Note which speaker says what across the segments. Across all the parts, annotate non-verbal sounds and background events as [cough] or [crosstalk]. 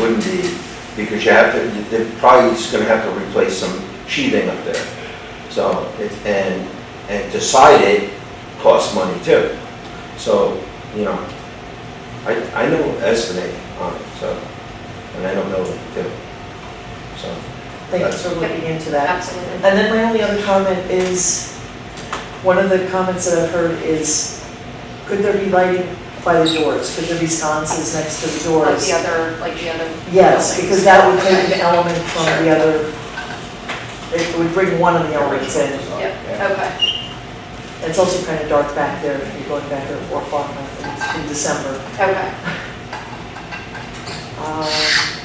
Speaker 1: wouldn't be, because you have to, you- they're probably just gonna have to replace some sheathing up there. So, it's, and, and to side it costs money too. So, you know, I, I know estimate on it, so, and I don't know it too. So,
Speaker 2: Thanks for looking into that.
Speaker 3: Absolutely.
Speaker 2: And then my only other comment is, one of the comments that I've heard is, could there be lighting by the doors? Could there be sconces next to the
Speaker 3: Like
Speaker 2: doors?
Speaker 3: the other, like the other.
Speaker 2: Yes, because that would take an
Speaker 3: Okay.
Speaker 2: element from the other, it would bring one of the elements in.
Speaker 3: Yep, okay.
Speaker 2: It's also kind of dark back there, if you're going back there at four o'clock I think, in December.
Speaker 3: Okay,
Speaker 2: Um,
Speaker 3: Oh.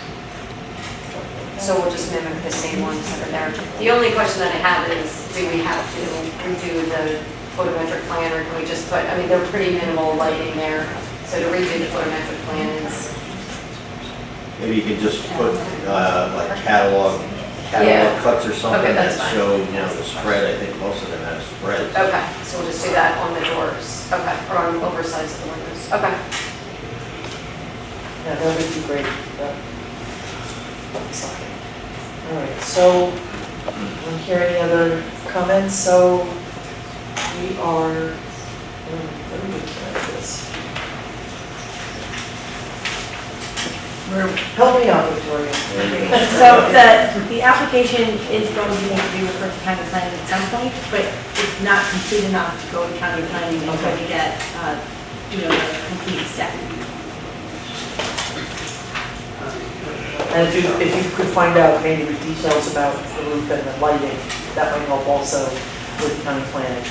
Speaker 3: so we'll just mimic the same ones that are there. The only question that I have is, do we have to redo the photometric plan, or can we just put, I mean, they're pretty minimal lighting there, so to redo the photometric plan is,
Speaker 4: Maybe you could just put, uh, like catalog, catalog
Speaker 3: Yeah.
Speaker 4: cuts or something
Speaker 3: Okay, that's
Speaker 4: that
Speaker 3: fine.
Speaker 4: show, you know, the spread, I think most of them have spreads.
Speaker 3: okay, so we'll just do that on the doors, okay, or on the oversize of the windows, okay.
Speaker 2: Yeah, that would be great, but, sorry. All right, so, don't hear any other comments, so we are, um, what are we looking at this? We're- Help me out, Victoria.
Speaker 5: [laughs] So the, the application is going to need to be referred to county planning at some point, but it's not complete enough to go to county planning until we get, uh, you know, the complete set.
Speaker 2: And if you, if you could find out maybe the details about the roof and the lighting, that might help also with county planning.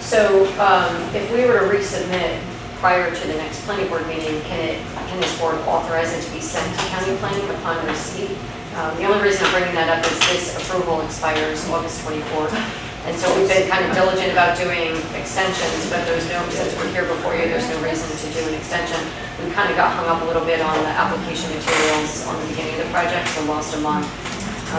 Speaker 3: So um, if we were to resubmit prior to the next planning board meeting, can it, can this board authorize it to be sent to county planning upon receipt? Um, The only reason I'm bringing that up is this approval expires August 24th. And so we've been kind of diligent about doing extensions, but there's no, since we're here before you, there's no reason to do an extension. We kind of got hung up a little bit on the application materials on the beginning of the project, so lost a month.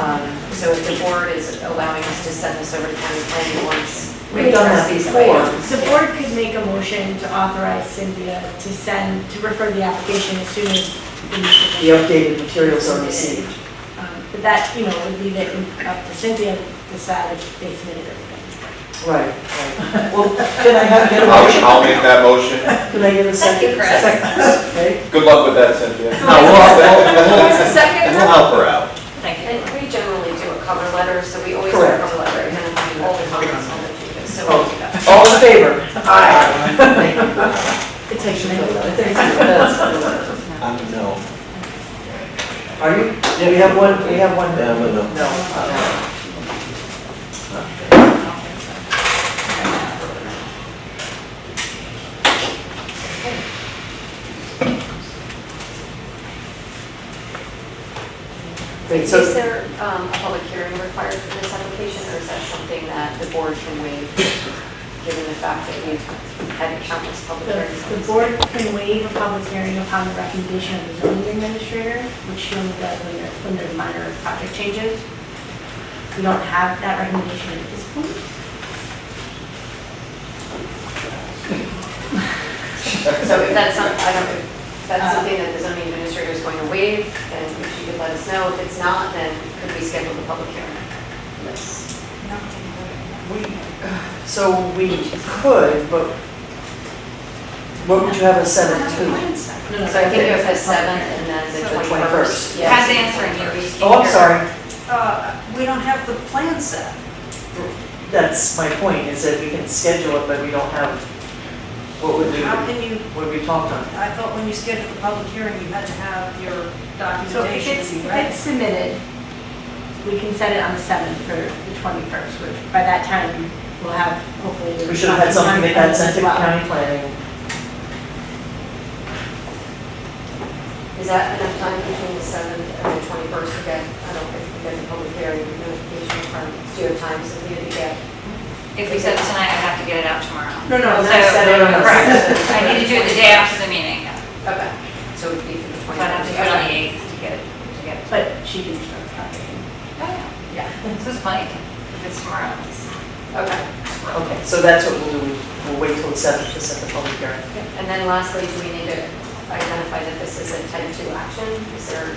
Speaker 3: Um, So if the board is allowing us to send this over to county planning once we
Speaker 5: We've done
Speaker 2: that
Speaker 3: address these
Speaker 2: before.
Speaker 4: [laughs]
Speaker 3: items.
Speaker 5: The board could make a motion to authorize Cynthia to send, to refer the application as soon as
Speaker 2: The
Speaker 5: the.
Speaker 2: updated materials are received.
Speaker 5: Um, But that, you know, would leave it up to Cynthia to decide if they submitted everything.
Speaker 2: Right, right. Well, can I have, get a motion?
Speaker 6: I'll, I'll make that motion.
Speaker 2: Can I get a
Speaker 3: Thank
Speaker 2: second?
Speaker 3: you, Chris.
Speaker 2: Second, okay.
Speaker 6: Good luck with that, Cynthia.
Speaker 4: No, Oh, we'll, we'll,
Speaker 3: Second,
Speaker 4: we'll help her out.
Speaker 3: and we generally do a cover letter, so we always do a
Speaker 2: Correct.
Speaker 3: cover letter, and then all the comments on the agenda, so we'll do that.
Speaker 2: [laughs] All in favor? Aye. It takes a minute. It takes a
Speaker 5: [laughs]
Speaker 1: I
Speaker 2: minute.
Speaker 1: don't know.
Speaker 2: Are you, we have one, we have one.
Speaker 1: Yeah, but no.
Speaker 2: No. okay. Wait,
Speaker 3: Is
Speaker 2: so,
Speaker 3: there um, a public hearing required for this application, or is that something that the board can waive, given the fact that we've had countless public hearings?
Speaker 5: The, the board can waive a public hearing upon the recommendation of the zoning administrator, which she only does when there, when there are minor project changes. We don't have that recommendation at this point.
Speaker 3: So if that's some, I don't, if that's
Speaker 5: Uh,
Speaker 3: something that the zoning administrator is going to waive, and if you could let us know, if it's not, then could we schedule the public hearing?
Speaker 7: Uh,
Speaker 2: we, so we could, but what would you have us send it to?
Speaker 3: So I think you have the seventh and then the
Speaker 7: So-
Speaker 3: twenty-first.
Speaker 7: Pat's answering you. we
Speaker 2: Oh, I'm
Speaker 7: can't-
Speaker 2: sorry,
Speaker 7: Uh, We don't have the plan set.
Speaker 2: that's my point, is that we can schedule it, but we don't have, what would we,
Speaker 7: How
Speaker 2: what
Speaker 7: can you,
Speaker 2: would we talk on?
Speaker 7: I thought when you scheduled the public hearing, you had to have your
Speaker 5: So if it's,
Speaker 7: documentation,
Speaker 5: if
Speaker 7: right?
Speaker 5: it's submitted, we can set it on the seventh for the twenty-first, which by that time, we'll have hopefully. the
Speaker 2: We should have had something that had sent to
Speaker 5: as well.
Speaker 2: county planning.
Speaker 3: Is that enough time between the seventh and the twenty-first to get, I don't think we get the public hearing notification from, do you have time Cynthia to get?
Speaker 7: If we said tonight, I'd have to get it out tomorrow.
Speaker 2: No, no,
Speaker 7: So-
Speaker 2: that's- no, no, no.
Speaker 7: Correct. I need to do it the day after the meeting,
Speaker 3: Okay, so it would be for the
Speaker 7: but
Speaker 3: twenty-first.
Speaker 7: I have to do it on the 8th to get it, to get it.
Speaker 5: But she can start talking.
Speaker 7: Yeah, this is Mike, if it's tomorrow. it's-
Speaker 3: Okay,
Speaker 2: Okay, so that's what we'll do, we'll wait till the seventh to set the public hearing.
Speaker 3: and then lastly, do we need to identified that this is a type two action, is there